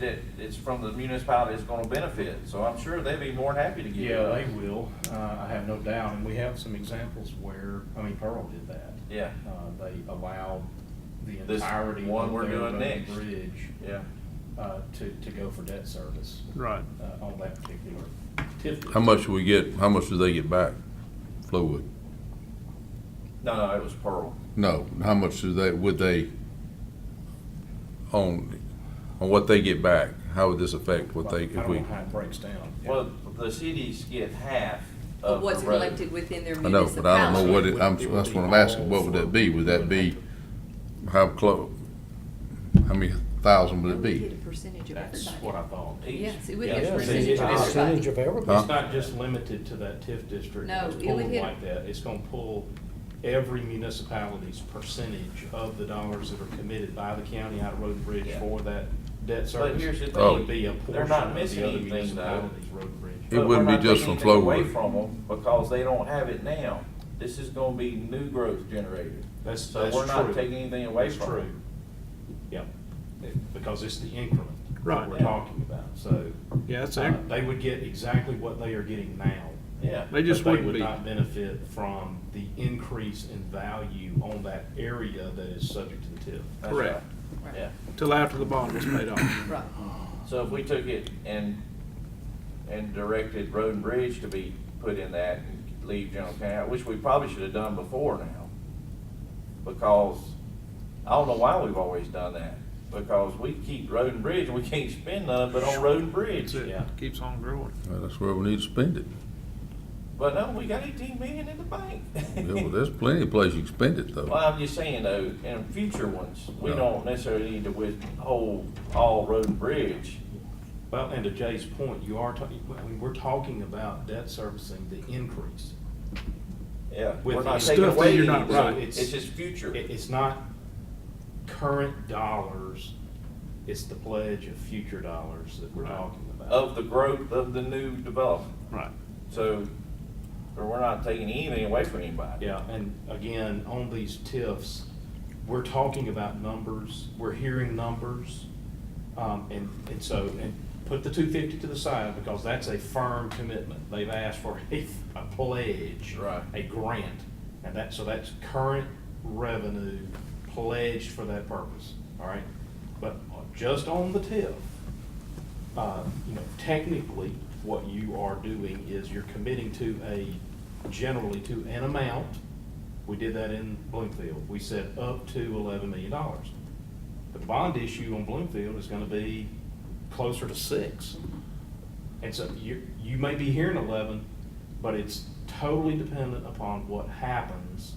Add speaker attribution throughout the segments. Speaker 1: that it's from the municipality that's gonna benefit, so I'm sure they'd be more than happy to give it
Speaker 2: Yeah,
Speaker 1: up.
Speaker 2: they will, uh, I have no doubt, and we have some examples where, I mean, Pearl did that.
Speaker 1: Yeah.
Speaker 2: Uh, they allowed the
Speaker 1: This
Speaker 2: entirety of their
Speaker 1: one we're doing
Speaker 2: road
Speaker 1: next.
Speaker 2: bridge,
Speaker 1: Yeah,
Speaker 2: uh, to, to go for debt service,
Speaker 3: Right.
Speaker 2: uh, on that particular TIF.
Speaker 4: How much do we get, how much do they get back, Flowood?
Speaker 1: no, no, it was Pearl.
Speaker 4: No, how much do they, would they, on, on what they get back? How would this affect what they,
Speaker 2: I
Speaker 4: if
Speaker 2: don't
Speaker 4: we?
Speaker 2: know how it breaks down.
Speaker 1: Well, the cities get half of
Speaker 5: of
Speaker 1: the
Speaker 5: what's
Speaker 1: road.
Speaker 5: collected within their
Speaker 4: I know,
Speaker 5: municipality.
Speaker 4: but I don't know what it, I'm,
Speaker 2: It would
Speaker 4: that's what I'm
Speaker 2: be
Speaker 4: asking,
Speaker 2: all
Speaker 4: what would
Speaker 2: for-
Speaker 4: that be? Would that be, how close, how many thousand would it
Speaker 5: We
Speaker 4: be?
Speaker 5: get a percentage of
Speaker 2: That's what
Speaker 5: everybody.
Speaker 2: I thought.
Speaker 1: Each-
Speaker 5: Yes, it would
Speaker 2: Yeah,
Speaker 5: get a
Speaker 2: it's a
Speaker 5: percentage of
Speaker 2: percentage.
Speaker 5: everybody.
Speaker 6: of everything.
Speaker 4: Huh?
Speaker 2: It's not just limited to that TIF district.
Speaker 5: No,
Speaker 2: that's
Speaker 5: it would
Speaker 2: pulled
Speaker 5: hit-
Speaker 2: Like that, it's gonna pull every municipality's percentage of the dollars that are committed by the county out of Road and Bridge
Speaker 1: Yeah.
Speaker 2: for that debt service.
Speaker 1: But here's the
Speaker 2: It would
Speaker 4: thing,
Speaker 2: be a
Speaker 1: they're
Speaker 2: portion
Speaker 1: not
Speaker 2: of
Speaker 1: missing
Speaker 2: the other
Speaker 1: anything, though.
Speaker 2: municipalities' Road and Bridge.
Speaker 4: It
Speaker 1: But
Speaker 4: wouldn't
Speaker 1: we're
Speaker 4: be
Speaker 1: not
Speaker 4: just
Speaker 1: taking
Speaker 4: from
Speaker 1: anything Away
Speaker 4: Flowood.
Speaker 1: from them, because they don't have it now. This is gonna be new growth generated.
Speaker 2: That's, that's
Speaker 1: So
Speaker 2: true.
Speaker 1: we're not taking anything away
Speaker 2: That's
Speaker 1: from
Speaker 2: true.
Speaker 1: them.
Speaker 2: Yeah, because it's the increment that
Speaker 3: Right.
Speaker 2: we're talking about, so.
Speaker 3: Yeah, that's
Speaker 2: uh,
Speaker 3: ac-
Speaker 2: They would get exactly what they are getting now.
Speaker 1: Yeah.
Speaker 3: They just
Speaker 2: but
Speaker 3: wouldn't
Speaker 2: They
Speaker 3: be.
Speaker 2: would not benefit from the increase in value on that area that is subject to the TIF.
Speaker 1: that's
Speaker 3: Correct.
Speaker 1: right.
Speaker 5: Right.
Speaker 1: Yeah.
Speaker 3: Till after the bond was paid off.
Speaker 5: Right.
Speaker 1: So if we took it and, and directed road and bridge to be put in that and leave general county, which we probably should have done before now. Because I don't know why we've always done that, because we keep road and bridge and we can't spend none but on road and bridge.
Speaker 3: That's it.
Speaker 2: Yeah.
Speaker 3: Keeps on growing.
Speaker 4: Well, That's where we need to spend it.
Speaker 1: But no, we got eighteen million in the bank.
Speaker 4: Yeah, well, there's plenty of places you can spend it
Speaker 1: Well,
Speaker 4: though.
Speaker 1: I'm just saying though, in future ones, we
Speaker 4: No.
Speaker 1: don't necessarily need to withhold all road and bridge.
Speaker 2: Well, and to Jay's point, you are talking, I mean, we're talking about debt servicing the increase.
Speaker 1: Yeah,
Speaker 2: With
Speaker 1: we're not
Speaker 2: the
Speaker 1: taking
Speaker 3: stuff that
Speaker 1: away
Speaker 3: you're not
Speaker 1: anything.
Speaker 2: right.
Speaker 1: It's just future.
Speaker 2: It, it's not current dollars, it's the pledge of future dollars that we're
Speaker 3: Right.
Speaker 2: talking about.
Speaker 1: of the growth of the new development.
Speaker 3: Right.
Speaker 1: So, or we're not taking anything away from anybody.
Speaker 2: Yeah, and again, on these TIFs, we're talking about numbers, we're hearing numbers. Um, and, and so, and put the two fifty to the side because that's a firm commitment. They've asked for a, a pledge.
Speaker 1: Right.
Speaker 2: A grant. And that, so that's current revenue pledged for that purpose, all right? But just on the TIF, uh, you know, technically, what you are doing is you're committing to a, generally to an amount. We did that in Bloomfield. We said up to eleven million dollars. The bond issue on Bloomfield is gonna be closer to six. And so you, you may be hearing eleven, but it's totally dependent upon what happens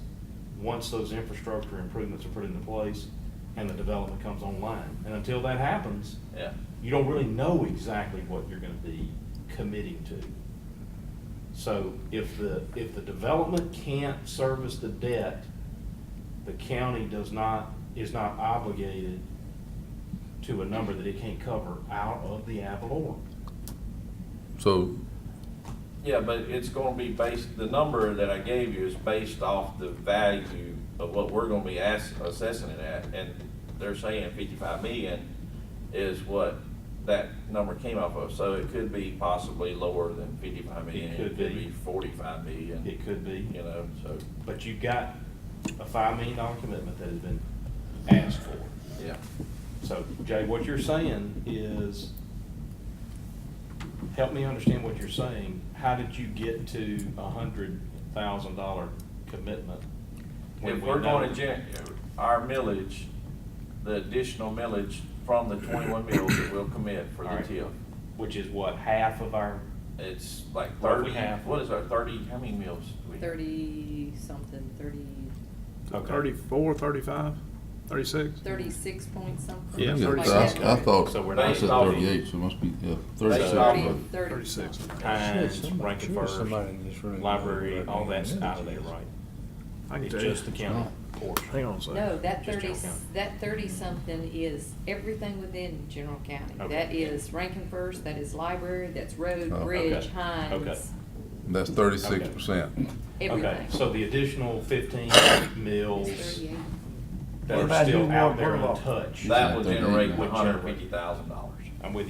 Speaker 2: once those infrastructure improvements are put into place and the development comes online. And until that happens,
Speaker 1: Yeah.
Speaker 2: you don't really know exactly what you're gonna be committing to. So if the, if the development can't service the debt, the county does not, is not obligated to a number that it can't cover out of the ad valorem.
Speaker 4: So,
Speaker 1: Yeah, but it's gonna be based, the number that I gave you is based off the value of what we're gonna be ass- assessing it at. And they're saying fifty-five million is what that number came off of. So it could be possibly lower than fifty-five million.
Speaker 2: It could be.
Speaker 1: forty-five million,
Speaker 2: It could
Speaker 1: you
Speaker 2: be,
Speaker 1: know, so,
Speaker 2: but you've got a five million dollar commitment that has been asked for.
Speaker 1: yeah.
Speaker 2: So Jay, what you're saying is, help me understand what you're saying. How did you get to a hundred thousand dollar commitment? when
Speaker 1: If
Speaker 2: we
Speaker 1: we're
Speaker 2: know-
Speaker 1: gonna gen, our millage, the additional millage from the twenty-one mills that we'll commit for the
Speaker 2: Alright.
Speaker 1: TIF,
Speaker 2: Which is what, half of our,
Speaker 1: it's like
Speaker 2: Roughly
Speaker 1: thirty,
Speaker 2: half.
Speaker 1: what is our thirty, how many mills? do we have?
Speaker 5: Thirty something, thirty,
Speaker 2: okay,
Speaker 3: Thirty-four, thirty-five, thirty-six?
Speaker 5: thirty-six point something.
Speaker 4: I
Speaker 3: Yeah,
Speaker 4: think
Speaker 5: something like
Speaker 4: it's-
Speaker 5: that.
Speaker 4: I I thought,
Speaker 2: So we're
Speaker 4: I
Speaker 1: not-
Speaker 4: said thirty-eight, so it must be, yeah,
Speaker 1: Based
Speaker 4: thirty-six.
Speaker 1: off
Speaker 5: Thirty,
Speaker 1: of-
Speaker 5: thirty.
Speaker 3: Thirty-six.
Speaker 2: Hines,
Speaker 6: Shit, somebody-
Speaker 2: Rankin
Speaker 6: sure
Speaker 2: First,
Speaker 6: somebody in this room-
Speaker 2: library, all that's out of there, right?
Speaker 3: I can
Speaker 2: It's
Speaker 3: tell you.
Speaker 2: just the county
Speaker 3: Hang
Speaker 2: portion.
Speaker 3: on a second.
Speaker 5: No, that
Speaker 2: Just
Speaker 5: thirty,
Speaker 2: general county.
Speaker 5: that thirty-something is everything within general county.
Speaker 2: Okay.
Speaker 5: That is Rankin First, that is library, that's road,
Speaker 4: Oh.
Speaker 5: bridge,
Speaker 2: Okay. Okay.
Speaker 5: Hines,
Speaker 4: That's thirty-six percent.
Speaker 2: Okay,
Speaker 5: everything.
Speaker 2: so the additional fifteen
Speaker 5: It's
Speaker 2: mills
Speaker 5: 38.
Speaker 2: that
Speaker 6: What
Speaker 2: are
Speaker 6: about
Speaker 2: still
Speaker 6: who
Speaker 2: out
Speaker 6: won
Speaker 2: there
Speaker 6: Burlock?
Speaker 2: untouched.
Speaker 1: That will generate
Speaker 4: Which
Speaker 1: one hundred and fifty thousand dollars.
Speaker 2: I'm with you.